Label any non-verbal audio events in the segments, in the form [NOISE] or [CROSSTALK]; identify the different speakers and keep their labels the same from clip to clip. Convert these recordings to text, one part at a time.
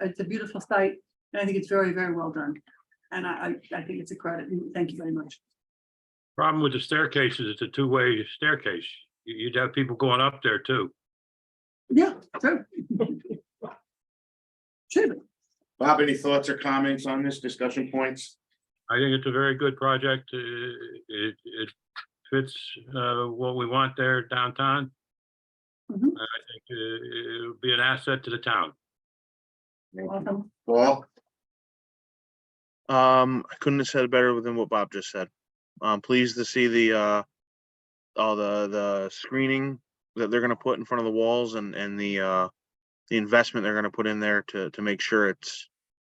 Speaker 1: It's a beautiful site and I think it's very, very well done. And I, I, I think it's a credit. and Thank you very much.
Speaker 2: Problem with the staircase is it's a two-way staircase. You- You'd have people going up there too.
Speaker 1: Yeah, [LAUGHS] true. True.
Speaker 3: Bob, any thoughts or comments on this discussion points?
Speaker 2: I think it's a very good project. Uh, It, it fits uh, what we want there downtown.
Speaker 1: Mhm.
Speaker 2: And I think uh, it'll be an asset to the town.
Speaker 1: Awesome.
Speaker 3: Paul,
Speaker 4: Um, I couldn't have said it better than what Bob just said. I'm pleased to see the uh, all the the screening that they're gonna put in front of the walls and and the uh, the investment they're gonna put in there to to make sure it's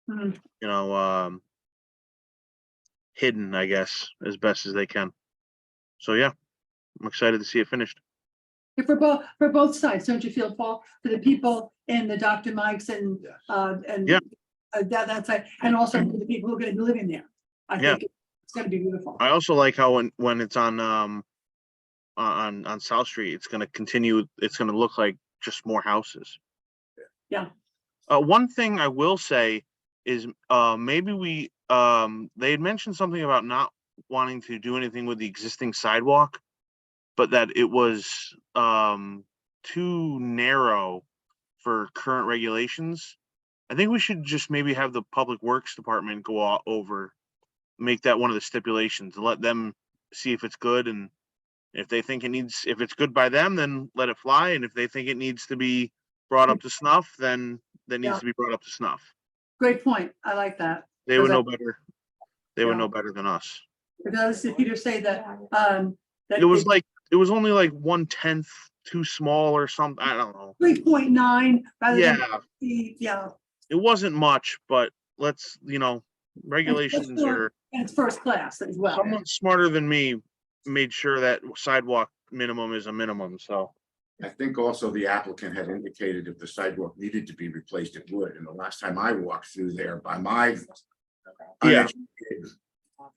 Speaker 1: Mhm.
Speaker 4: you know um, hidden, I guess, as best as they can. So yeah, I'm excited to see it finished.
Speaker 1: For both, for both sides, don't you feel, Paul, for the people and the Dr. Mikes and,
Speaker 3: Yes.
Speaker 1: uh, and
Speaker 4: Yeah.
Speaker 1: uh, that, that's it. And also for the people who are gonna be living there. I
Speaker 4: Yeah.
Speaker 1: think it's gonna be beautiful.
Speaker 4: I also like how when when it's on um on on South Street, it's gonna continue. It's gonna look like just more houses.
Speaker 1: Yeah.
Speaker 4: Uh, one thing I will say is uh maybe we um they had mentioned something about not wanting to do anything with the existing sidewalk, but that it was um too narrow for current regulations. I think we should just maybe have the Public Works Department go o- over make that one of the stipulations and let them see if it's good and if they think it needs, if it's good by them, then let it fly. And if they think it needs to be brought up to snuff, then that
Speaker 1: Yeah.
Speaker 4: needs to be brought up to snuff.
Speaker 1: Great point. I like that.
Speaker 4: They would
Speaker 1: Does
Speaker 4: know better. They would
Speaker 1: Yeah.
Speaker 4: know better than us.
Speaker 1: Because if Peter say that, um. that
Speaker 4: It was
Speaker 1: it's
Speaker 4: like, it was only like one tenth too small or something. I don't know.
Speaker 1: Three point nine rather than,
Speaker 4: Yeah,
Speaker 1: the- yeah,
Speaker 4: it wasn't much, but let's, you know, regulations
Speaker 1: sure.
Speaker 4: are,
Speaker 1: and it's first class as well.
Speaker 4: someone smarter than me made sure that sidewalk minimum is a minimum, so.
Speaker 3: I think also the applicant had indicated if the sidewalk needed to be replaced, it would. And the last time I walked through there by my
Speaker 4: Yeah.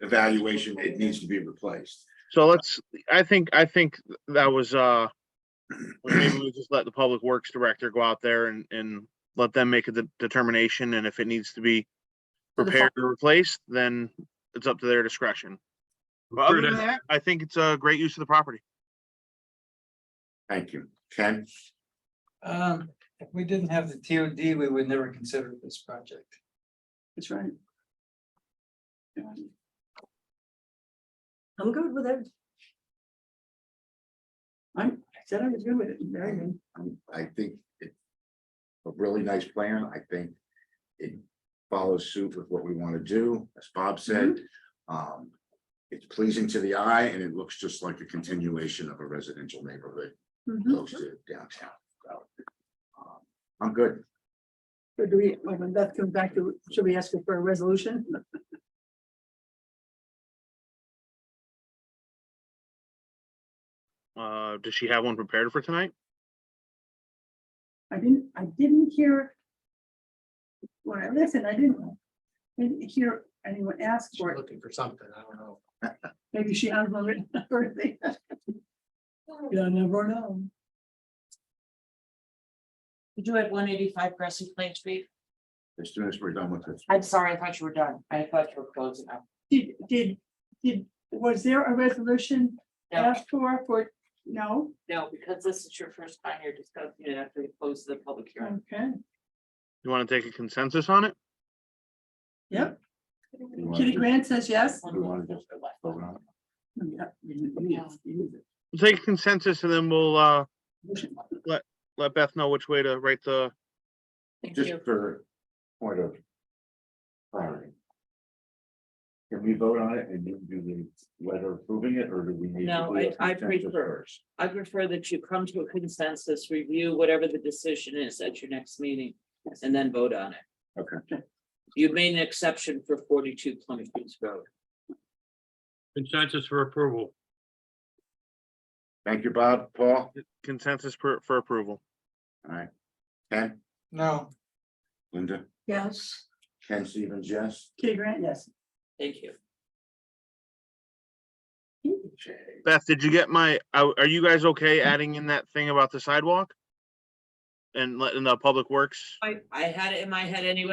Speaker 3: evaluation, it needs to be replaced.
Speaker 4: So let's, I think, I think that was, uh, maybe we just let the public works director go out there and, and let them make a de- determination, and if it needs to be
Speaker 1: For the fi-
Speaker 4: repaired or replaced, then it's up to their discretion. But other than that, I think it's a great use of the property.
Speaker 3: Thank you. Ken,
Speaker 5: Um, if we didn't have the TOD, we would never consider this project.
Speaker 1: That's right.
Speaker 6: I'm good with it.
Speaker 1: I'm, I said I was good with it, very good.
Speaker 3: um, I think it's a really nice plan. I think it follows suit with what we want to do, as Bob said. Um, It's pleasing to the eye and it looks just like a continuation of a residential neighborhood.
Speaker 1: Mhm.
Speaker 3: close to downtown. So, um, I'm good.
Speaker 1: So do we, when Beth comes back, do- should we ask her for a resolution?
Speaker 4: Uh, does she have one prepared for tonight?
Speaker 1: I didn't, I didn't hear. When I listened, I didn't, I didn't hear anyone ask for it.
Speaker 5: Looking for something, I don't know.
Speaker 1: Maybe she has one written birthday. You never know.
Speaker 6: Did you at one eighty-five Crescent Plain Street?
Speaker 3: As soon as we're done with this,
Speaker 6: I'm sorry, I thought you were done. I thought you were closing up.
Speaker 1: Did, did, did, was there a resolution
Speaker 6: No,
Speaker 1: asked for, for, no?
Speaker 6: no, because this is your first time here discussing it after we close the public hearing.
Speaker 1: Okay,
Speaker 4: You want to take a consensus on it?
Speaker 1: yep.
Speaker 3: You want
Speaker 1: Kitty
Speaker 3: to-
Speaker 1: Grant says yes.
Speaker 3: we want to just vote on it.
Speaker 1: Yeah, you- you- you- you-
Speaker 4: We'll Take a consensus and then we'll, uh,
Speaker 1: motion.
Speaker 4: let Beth know which way to write the,
Speaker 6: Thank you.
Speaker 3: just for point of clarity. Can we vote on it and you do the letter approving it, or do we need? to
Speaker 6: No,
Speaker 3: do a
Speaker 6: I- I
Speaker 3: consensus
Speaker 6: prefer-
Speaker 3: first?
Speaker 6: I prefer that you come to a consensus, review whatever the decision is at your next meeting, and then vote on it.
Speaker 3: Okay.
Speaker 6: You made an exception for forty-two Plymouth Beach Road.
Speaker 2: Consensus for approval.
Speaker 3: Thank you, Bob, Paul, all
Speaker 4: consensus for, for approval.
Speaker 3: right. Ken,
Speaker 5: No,
Speaker 3: Linda,
Speaker 1: Yes.
Speaker 3: Ken Stevens, yes.
Speaker 1: Kitty Grant, yes.
Speaker 6: Thank you.
Speaker 3: Okay.
Speaker 7: uh,
Speaker 4: Beth, did you get my, are are you guys okay adding in that thing about the sidewalk?
Speaker 7: and letting the public works
Speaker 4: I had it in my head anyway.